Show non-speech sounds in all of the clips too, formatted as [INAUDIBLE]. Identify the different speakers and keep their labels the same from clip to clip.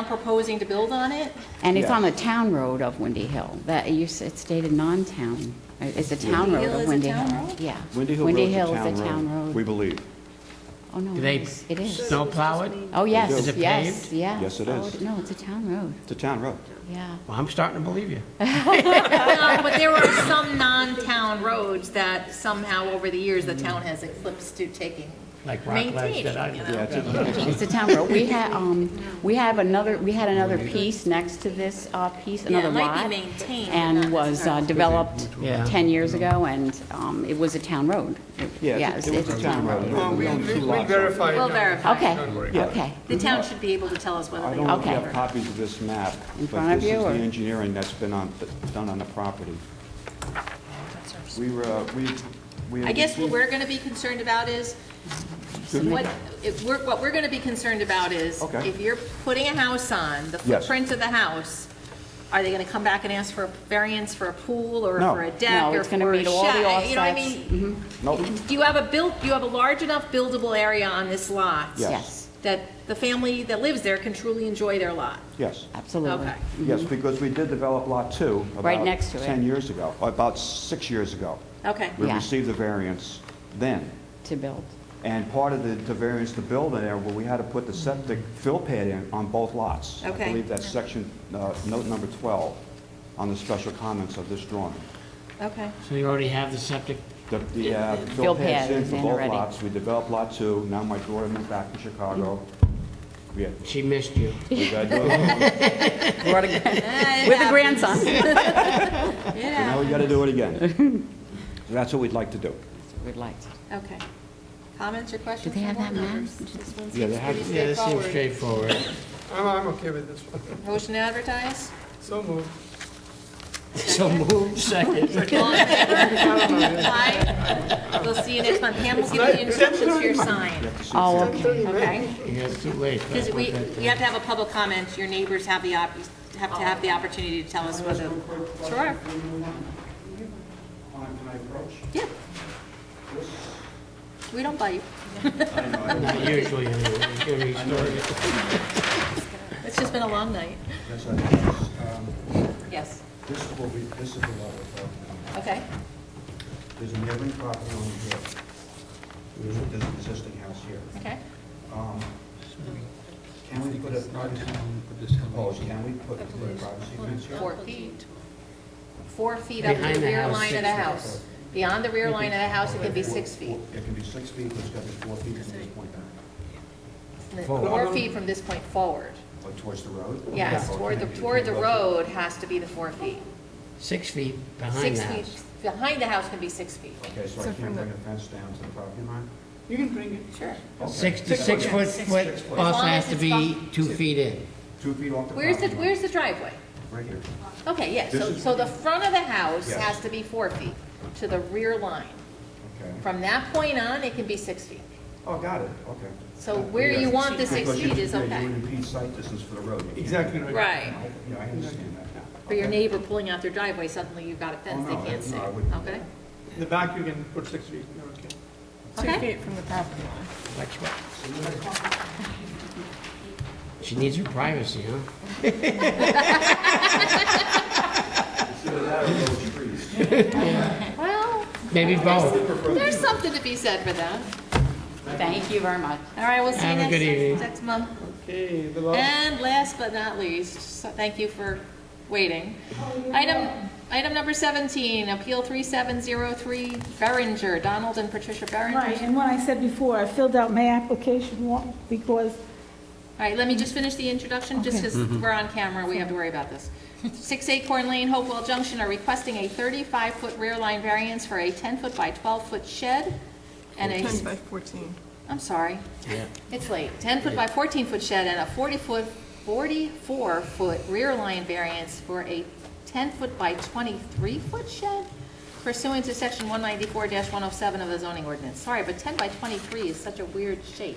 Speaker 1: I'm proposing to build on it.
Speaker 2: And it's
Speaker 3: Yeah.
Speaker 2: on the town road of Windy Hill. That, you, s- it's stated non-town. It's a town road
Speaker 1: Hill is
Speaker 2: of
Speaker 1: a
Speaker 2: Windy
Speaker 1: town
Speaker 2: Hill.
Speaker 1: road?
Speaker 2: Yeah.
Speaker 3: Windy Hill
Speaker 2: Windy
Speaker 3: Road's
Speaker 2: Hill is a town
Speaker 3: We
Speaker 2: road.
Speaker 3: believe.
Speaker 2: Oh, no,
Speaker 4: Do
Speaker 2: it
Speaker 4: they
Speaker 2: is. It is.
Speaker 4: snowplow it?
Speaker 2: Oh, yes,
Speaker 3: Is
Speaker 4: it
Speaker 2: yes,
Speaker 4: paved?
Speaker 2: yeah.
Speaker 3: Yes, it
Speaker 2: Oh,
Speaker 3: is.
Speaker 2: No, it's a town road,
Speaker 3: It's a town road.
Speaker 2: yeah.
Speaker 4: Well, I'm starting to believe you.
Speaker 1: No, But there are some non-town roads that somehow over the years, the town has eclipsed to taking,
Speaker 4: Like rock ledge
Speaker 1: maintaining,
Speaker 4: that I-
Speaker 1: you
Speaker 3: Yeah,
Speaker 1: know?
Speaker 3: it's a-
Speaker 2: It's a town road.
Speaker 1: [LAUGHS]
Speaker 2: We had, um, we have another, we had another piece next to this, uh, piece,
Speaker 1: Yeah, it
Speaker 2: another lot.
Speaker 1: might be maintained, but not
Speaker 2: And was uh,
Speaker 1: necessarily-
Speaker 2: developed
Speaker 4: Yeah.
Speaker 2: ten years ago, and, um, it was a town road. It-
Speaker 3: yeah, it's a- it was a town road. There
Speaker 5: Well,
Speaker 3: were
Speaker 5: we,
Speaker 3: only
Speaker 5: we
Speaker 3: two
Speaker 5: we
Speaker 3: lots.
Speaker 5: verify. it
Speaker 1: We'll
Speaker 5: now.
Speaker 1: verify.
Speaker 2: Okay,
Speaker 5: Don't worry.
Speaker 2: okay.
Speaker 1: The town should be able to tell us whether
Speaker 3: I
Speaker 1: they
Speaker 3: don't know if you
Speaker 2: Okay.
Speaker 3: have copies of this map,
Speaker 2: In front
Speaker 3: but
Speaker 2: of
Speaker 3: this is
Speaker 2: you,
Speaker 3: the
Speaker 2: or-
Speaker 3: engineering that's been on, done on the property. We were, uh, we, we.
Speaker 1: I guess what we're going to be concerned about is, what, if we're, what we're going to be concerned about is,
Speaker 3: Okay.
Speaker 1: if you're putting a house on, the
Speaker 3: Yes.
Speaker 1: footprint of the house, are they going to come back and ask for a variance for a pool, or
Speaker 3: No.
Speaker 1: for a deck,
Speaker 2: No,
Speaker 1: or
Speaker 2: it's gonna
Speaker 1: for a
Speaker 2: meet all the
Speaker 1: shed? You know what I
Speaker 2: offsets. Mm-hmm.
Speaker 1: mean?
Speaker 3: Nope.
Speaker 1: Do you have a built, you have a large enough buildable area on this lot?
Speaker 3: Yes.
Speaker 2: Yes,
Speaker 1: That the family that lives there can truly enjoy their lot?
Speaker 3: Yes,
Speaker 2: absolutely.
Speaker 1: Okay.
Speaker 3: yes, because we did develop Lot 2
Speaker 2: Mm-hmm. Right
Speaker 3: about
Speaker 2: next to it.
Speaker 3: 10 years ago, about six years ago.
Speaker 1: Okay.
Speaker 3: We
Speaker 2: Yeah.
Speaker 3: received the variance then.
Speaker 2: To build.
Speaker 3: And part of the, the variance to build in there, well, we had to put the septic fill pad in on both lots. I
Speaker 1: Okay.
Speaker 3: believe that's section, uh, note number 12 on the special comments of this drawing.
Speaker 1: Okay.
Speaker 4: So you already have the septic,
Speaker 3: The, the uh,
Speaker 2: Fill
Speaker 3: fill pad's
Speaker 2: pad
Speaker 3: in
Speaker 2: is
Speaker 3: for
Speaker 2: in
Speaker 3: both
Speaker 2: already.
Speaker 3: lots. We developed Lot 2, now my daughter moved back to Chicago. We had,
Speaker 4: she missed you.
Speaker 3: we got, so
Speaker 2: Brought a- With a grandson.
Speaker 1: Yeah,
Speaker 3: now we gotta do it again. So That's what we'd like to do.
Speaker 2: We'd like to.
Speaker 1: okay. Comments or questions?
Speaker 2: Do they
Speaker 1: from
Speaker 2: have
Speaker 1: board
Speaker 2: that map?
Speaker 1: members? This one
Speaker 3: Yeah, they
Speaker 1: seems
Speaker 3: have
Speaker 1: pretty
Speaker 3: it.
Speaker 4: Yeah, this seems
Speaker 1: straightforward.
Speaker 4: straightforward. [LAUGHS]
Speaker 5: I'm, I'm okay with this one. [LAUGHS]
Speaker 1: Motion to advertise?
Speaker 5: So moved.
Speaker 4: So moved, second.
Speaker 1: All in favor?
Speaker 5: I don't know, yeah.
Speaker 1: Aye. We'll see you next month. Pam will give you the instructions for your
Speaker 3: You
Speaker 1: sign,
Speaker 3: have to see-
Speaker 2: Oh,
Speaker 5: Don't
Speaker 2: okay.
Speaker 5: tell me, man.
Speaker 1: okay?
Speaker 4: Yeah, it's too late.
Speaker 1: Because we, we have to have a public comment. Your neighbors have the, op- have to have the opportunity to tell us whether. Sure.
Speaker 3: On my approach,
Speaker 1: Yeah. We don't bite.
Speaker 4: Not usually, anyway. It's gonna be started.
Speaker 1: It's just been a long night.
Speaker 3: yes, I guess, um,
Speaker 1: Yes.
Speaker 3: This will be, this is the lot we're talking about.
Speaker 1: Okay.
Speaker 3: There's an neighboring property on here. There's a- there's an existing house here.
Speaker 1: Okay.
Speaker 3: Um, Can we put a privacy, proposed, can we put a privacy fence here?
Speaker 1: Four feet. Four feet up to
Speaker 4: Behind
Speaker 1: the
Speaker 4: the
Speaker 1: rear
Speaker 4: house,
Speaker 1: line of
Speaker 4: six
Speaker 1: the
Speaker 4: feet.
Speaker 1: house. Beyond the rear line of the house, it can be six feet.
Speaker 3: It can be six feet, but it's got to be four feet from this point down,
Speaker 1: Four feet from this point forward.
Speaker 3: or towards the road?
Speaker 1: Yes, toward the, toward the road has to be the four feet.
Speaker 4: Six feet behind
Speaker 1: Six
Speaker 4: the
Speaker 1: feet,
Speaker 4: house.
Speaker 1: behind the house can be six feet.
Speaker 3: Okay, so I can't bring a fence down to the property line?
Speaker 5: You can bring it.
Speaker 1: Sure.
Speaker 3: Okay.
Speaker 4: Six to six foot,
Speaker 3: Six
Speaker 4: foot
Speaker 3: foot.
Speaker 1: As
Speaker 4: also
Speaker 1: long
Speaker 4: has
Speaker 1: as
Speaker 4: to
Speaker 1: it's
Speaker 4: be
Speaker 1: bump-
Speaker 4: two feet in.
Speaker 3: Two feet off the
Speaker 1: Where's the,
Speaker 3: property line.
Speaker 1: where's the driveway?
Speaker 3: Right here.
Speaker 1: Okay, yeah,
Speaker 3: This
Speaker 1: so,
Speaker 3: is-
Speaker 1: so the front of the house
Speaker 3: Yes.
Speaker 1: has to be four feet to the rear line.
Speaker 3: Okay.
Speaker 1: From that point on, it can be six feet.
Speaker 3: Oh, got it, okay.
Speaker 1: So where
Speaker 3: Yeah.
Speaker 1: you want the six
Speaker 3: Because you-
Speaker 1: feet is
Speaker 3: yeah,
Speaker 1: okay.
Speaker 3: You would impede sight distance for the road.
Speaker 5: Exactly right.
Speaker 1: Right.
Speaker 3: Yeah, I understand that now.
Speaker 1: For your
Speaker 3: Okay.
Speaker 1: neighbor pulling out their driveway, suddenly you've got a fence
Speaker 3: Oh,
Speaker 1: they
Speaker 3: no,
Speaker 1: can't
Speaker 3: no,
Speaker 1: see,
Speaker 3: I wouldn't do
Speaker 1: okay?
Speaker 5: In the back, you can put six feet, you're okay.
Speaker 1: Okay,
Speaker 4: She needs her privacy, huh?
Speaker 3: Consider that a road of trees.
Speaker 1: well,
Speaker 4: Maybe both.
Speaker 1: there's something to be said for that.
Speaker 2: Thank you very much.
Speaker 1: All right, we'll see you
Speaker 4: Have a good evening.
Speaker 1: next, next month.
Speaker 5: Okay, the
Speaker 3: Oh.
Speaker 5: last.
Speaker 1: And last but not least, so thank you for waiting. Item, item number 17, Appeal 3703, Berenger, Donald and Patricia Berenger.
Speaker 6: Right, and what I said before, I filled out my application wa- because
Speaker 1: All right, let me just finish the introduction, just because
Speaker 3: Mm-hmm.
Speaker 1: we're on camera, we have to worry about this. Six Acorn Lane, Hopewell Junction are requesting a 35-foot rear line variance for a 10-foot by 12-foot shed and a... 10 by 14. I'm sorry.
Speaker 4: Yeah.
Speaker 1: It's late. 10-foot by 14-foot shed and a 40-foot, 44-foot rear line variance for a 10-foot by 23-foot shed pursuant to Section 194-107 of the zoning ordinance. Sorry, but 10 by 23 is such a weird shape.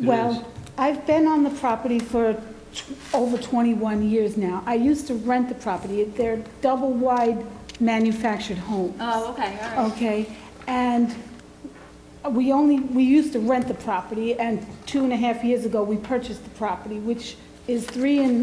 Speaker 6: Well, I've been on the property for tw- over 21 years now. I used to rent the property. They're double-wide manufactured homes.
Speaker 1: Oh, okay, all right.
Speaker 6: Okay, and we only, we used to rent the property, and two and a half years ago, we purchased the property, which is three and